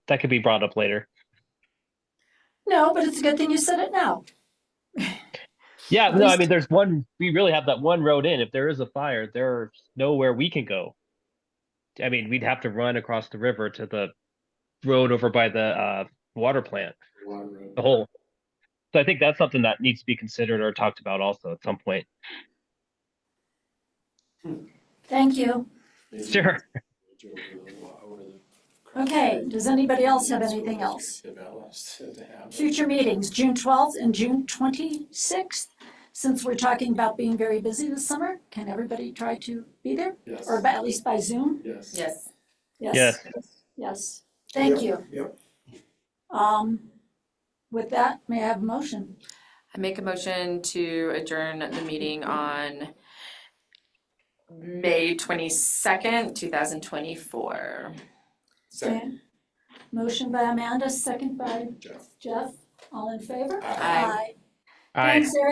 that could be brought up later. No, but it's a good thing you said it now. Yeah, At no, I least- mean, there's one. We really have that one road in. If there is a fire, there's nowhere we can go. I mean, we'd have to run across the river to the road over by the uh, water plant. The whole. So I think that's something that needs to be considered or talked about also at some point. Thank you. Sure. Okay, does anybody else have anything else? Future meetings, June 12th and June 26th. Since we're talking about being very busy this summer, can everybody try to be there? Yes. Or by- at least by Zoom? Yes. Yes. Yes. Yes, thank you. Yep. Um, With that, may I have a motion? I make a motion to adjourn the meeting on May twenty-second, two thousand twenty-four. Second, Motion by Amanda, second by Jeff. Jeff. All in favor? Aye. Aye. Thanks, Eric.